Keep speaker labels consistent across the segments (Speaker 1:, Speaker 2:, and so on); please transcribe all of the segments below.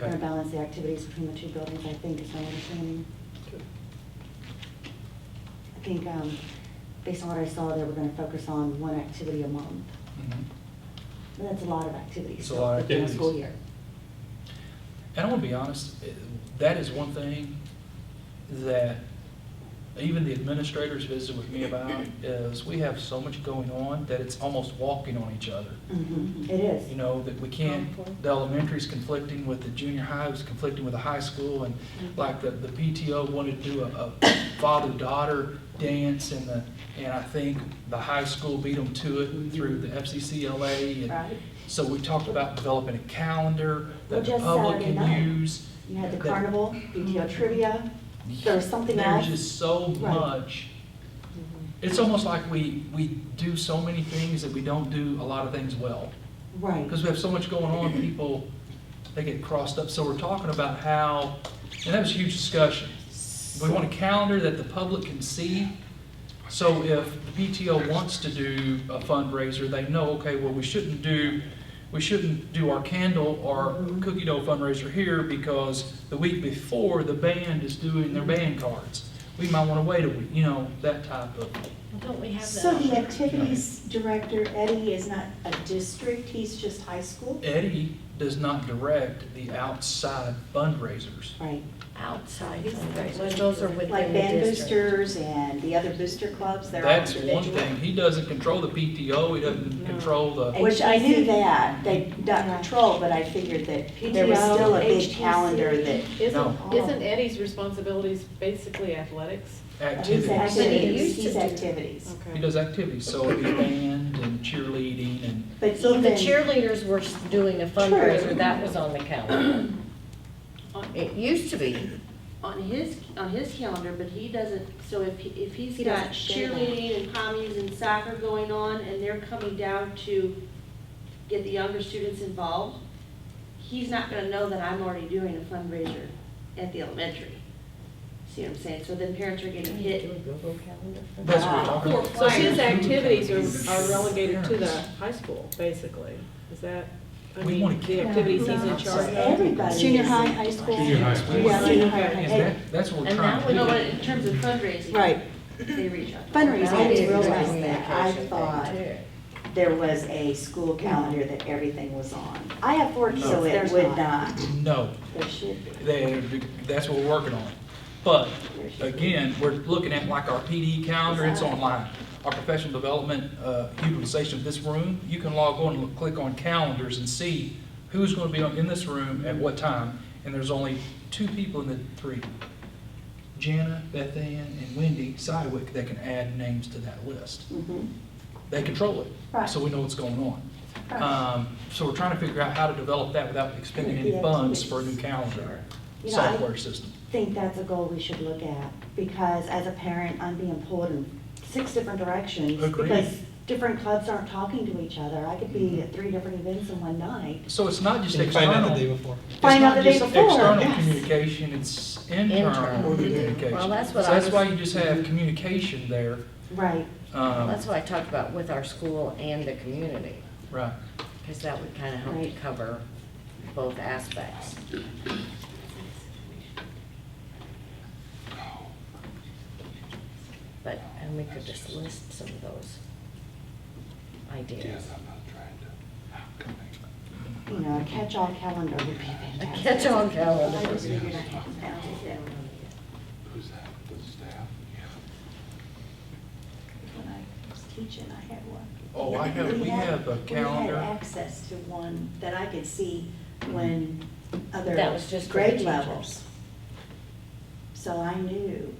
Speaker 1: Or
Speaker 2: Okay.
Speaker 1: balance the activities between the two buildings, I think is my understanding. I think, um, based on what I saw, they were gonna focus on one activity a month.
Speaker 2: Mhm.
Speaker 1: But that's a lot of activities.
Speaker 2: It's a lot of
Speaker 1: within
Speaker 2: activities.
Speaker 1: School year.
Speaker 2: And I want to be honest, eh, that is one thing that even the administrators visit with me about, is we have so much going on that it's almost walking on each other.
Speaker 1: Mhm,
Speaker 3: Mm-hmm.
Speaker 1: It is.
Speaker 2: You know, that we can't, the elementary's conflicting with the junior high, it's conflicting with the high school, and like the, the PTO wanted to do a, a father-daughter dance, and the, and I think the high school beat them to it through the FCCLA, and
Speaker 1: Right?
Speaker 2: so we talked about developing a calendar that the
Speaker 1: Well, just
Speaker 2: public
Speaker 1: Saturday
Speaker 2: can
Speaker 1: night.
Speaker 2: use.
Speaker 1: You had the
Speaker 2: That-
Speaker 1: carnival, BTO trivia, there was something
Speaker 2: There's
Speaker 1: else.
Speaker 2: just so
Speaker 1: Right. Mm-hmm.
Speaker 2: much. It's almost like we, we do so many things that we don't do a lot of things well.
Speaker 1: Right.
Speaker 2: Because we have so much going on, people, they get crossed up. So we're talking about how, and that was a huge discussion. We want a calendar that the public can see. So if the PTO wants to do a fundraiser, they know, okay, well, we shouldn't do, we shouldn't do our candle or cookie dough fundraiser here because the week before, the band is doing their band cards. We might want to wait a week, you know, that type of,
Speaker 4: Well, Don't we have that?
Speaker 3: So the
Speaker 4: already?
Speaker 3: activities director, Eddie, is not a district, he's just high school?
Speaker 2: Eddie does not direct the outside fundraisers.
Speaker 1: Right.
Speaker 4: Outside fundraisers, those are
Speaker 3: Like
Speaker 4: within the
Speaker 3: band
Speaker 4: district.
Speaker 3: boosters and the other booster clubs, they're all
Speaker 2: That's one
Speaker 3: individual.
Speaker 2: thing, he doesn't control the PTO, he doesn't control the,
Speaker 3: Which I knew
Speaker 1: HTC.
Speaker 3: that, they got
Speaker 1: Yeah.
Speaker 3: control, but I figured that there was
Speaker 1: PTO,
Speaker 3: still a big
Speaker 1: HTC.
Speaker 3: calendar that,
Speaker 2: No.
Speaker 5: Isn't, isn't Eddie's responsibilities basically athletics?
Speaker 3: he's
Speaker 2: activities.
Speaker 3: activities,
Speaker 4: used to
Speaker 3: he's
Speaker 4: do.
Speaker 3: activities.
Speaker 5: Okay.
Speaker 2: He does activities, so it'd be band and cheerleading and,
Speaker 3: But
Speaker 4: So if the
Speaker 3: even,
Speaker 4: cheerleaders were s- doing a fundraiser, that was on the calendar.
Speaker 5: On-
Speaker 4: It used to be.
Speaker 6: on his, on his calendar, but he doesn't, so if, he- if he's
Speaker 3: He
Speaker 6: got
Speaker 3: doesn't share that.
Speaker 6: cheerleading and commies and soccer going on, and they're coming down to get the younger students involved, he's not gonna know that I'm already doing a fundraiser at the elementary. See what I'm saying? So then parents are getting hit.
Speaker 4: Google calendar for
Speaker 2: that's
Speaker 4: that?
Speaker 2: what we're talking about.
Speaker 5: So his activities are are relegated to the high school, basically, is that, I
Speaker 2: We
Speaker 5: mean,
Speaker 2: want to
Speaker 5: the activities he's in charge of?
Speaker 3: everybody.
Speaker 1: Junior
Speaker 3: is-
Speaker 1: high, high school.
Speaker 7: Junior high school.
Speaker 1: Yeah, junior high, high
Speaker 2: Is
Speaker 1: school.
Speaker 2: that, that's what we're
Speaker 4: And
Speaker 2: trying
Speaker 4: that
Speaker 2: to
Speaker 4: would-
Speaker 6: No, but
Speaker 2: do.
Speaker 6: in terms of fundraising.
Speaker 3: Right.
Speaker 6: They reach out.
Speaker 3: Fundraising, I
Speaker 4: That is
Speaker 3: didn't
Speaker 4: a
Speaker 3: realize that. I
Speaker 4: communication
Speaker 3: thought
Speaker 4: thing, too.
Speaker 3: there was a school calendar that everything was on. I have four kids, so it
Speaker 1: There's
Speaker 3: would
Speaker 1: not.
Speaker 3: not.
Speaker 2: No,
Speaker 3: There should be.
Speaker 2: they, that's what we're working on. But
Speaker 3: There should be.
Speaker 2: again, we're looking at like our PD calendar, it's online. Our professional development, uh, utilization of this room, you can log on and look- click on calendars and see who's gonna be on- in this room at what time, and there's only two people in the three. Jana, Beth Ann, and Wendy Sidewick that can add names to that list.
Speaker 3: Mhm.
Speaker 2: They control it.
Speaker 3: Right.
Speaker 2: So we know what's going on.
Speaker 3: Right.
Speaker 2: Um, so we're trying to figure out how to develop that without expending any
Speaker 3: Yeah,
Speaker 2: funds
Speaker 3: activities.
Speaker 2: for a new calendar
Speaker 1: You know, I-
Speaker 2: software system.
Speaker 1: think that's a goal we should look at, because as a parent, I'm being pulled in six different directions.
Speaker 2: Agreed. Mm-hmm.
Speaker 1: Because different clubs aren't talking to each other. I could be at three different events in one night.
Speaker 2: So it's not just
Speaker 7: Did you find out the day
Speaker 2: external.
Speaker 7: before?
Speaker 2: It's
Speaker 1: Find out
Speaker 2: not
Speaker 1: the day
Speaker 2: just
Speaker 1: before,
Speaker 2: external
Speaker 1: yes.
Speaker 2: communication, it's
Speaker 4: Internal.
Speaker 2: internal
Speaker 4: Well,
Speaker 2: communication.
Speaker 4: that's
Speaker 2: So
Speaker 4: what I
Speaker 2: that's why
Speaker 4: was,
Speaker 2: you just have communication there.
Speaker 1: Right.
Speaker 2: um,
Speaker 4: that's what I talked about with our school and the community,
Speaker 2: Right.
Speaker 4: because that would kind of help to
Speaker 1: Right.
Speaker 4: cover both aspects. But, and we could just list some of those ideas.
Speaker 7: I'm not trying to.
Speaker 1: You know, a catch-all calendar would be
Speaker 4: A
Speaker 1: fantastic.
Speaker 4: catch-all
Speaker 1: I
Speaker 4: calendar.
Speaker 1: just figured I'd have that.
Speaker 7: Who's that, the staff?
Speaker 3: When I was teaching, I had one.
Speaker 2: Oh, I have, we
Speaker 3: had-
Speaker 2: have a
Speaker 3: We
Speaker 2: calendar.
Speaker 3: had access to one that I could see when
Speaker 2: Mm-hmm.
Speaker 3: other
Speaker 4: That was just for the
Speaker 3: grade
Speaker 4: teachers.
Speaker 3: levels. So I knew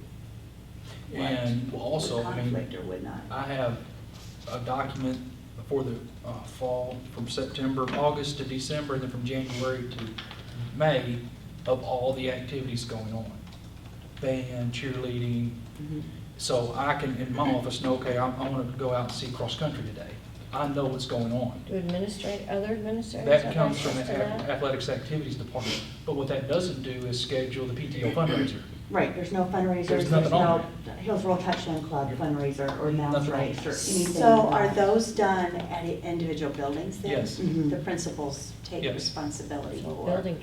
Speaker 2: And
Speaker 3: what would
Speaker 2: also, I mean,
Speaker 3: conflict or would not.
Speaker 2: I have a document for the uh, fall, from September, August to December, and then from January to May of all the activities going on. Band, cheerleading,
Speaker 4: Mm-hmm.
Speaker 1: Mhm.
Speaker 2: so I can, in my office, know, okay, I'm, I want to go out and see cross-country today. I know what's going on.
Speaker 4: Do administrate, other administrators have
Speaker 2: That comes from the
Speaker 4: access to that?
Speaker 2: ath- athletics activities department, but what that doesn't do is schedule the PTO fundraiser.
Speaker 1: Right, there's no fundraisers,
Speaker 2: There's
Speaker 1: there's
Speaker 2: nothing
Speaker 1: no
Speaker 2: on
Speaker 1: Hills Roll Touchdown Club fundraiser or mounds
Speaker 2: Nothing on
Speaker 1: race or anything.
Speaker 3: So
Speaker 1: like
Speaker 3: are
Speaker 1: that.
Speaker 3: those done at individual buildings then?
Speaker 2: Yes.
Speaker 3: The principals take
Speaker 2: Yes.
Speaker 3: responsibility
Speaker 4: Well,
Speaker 3: for?
Speaker 4: Mm-hmm. Building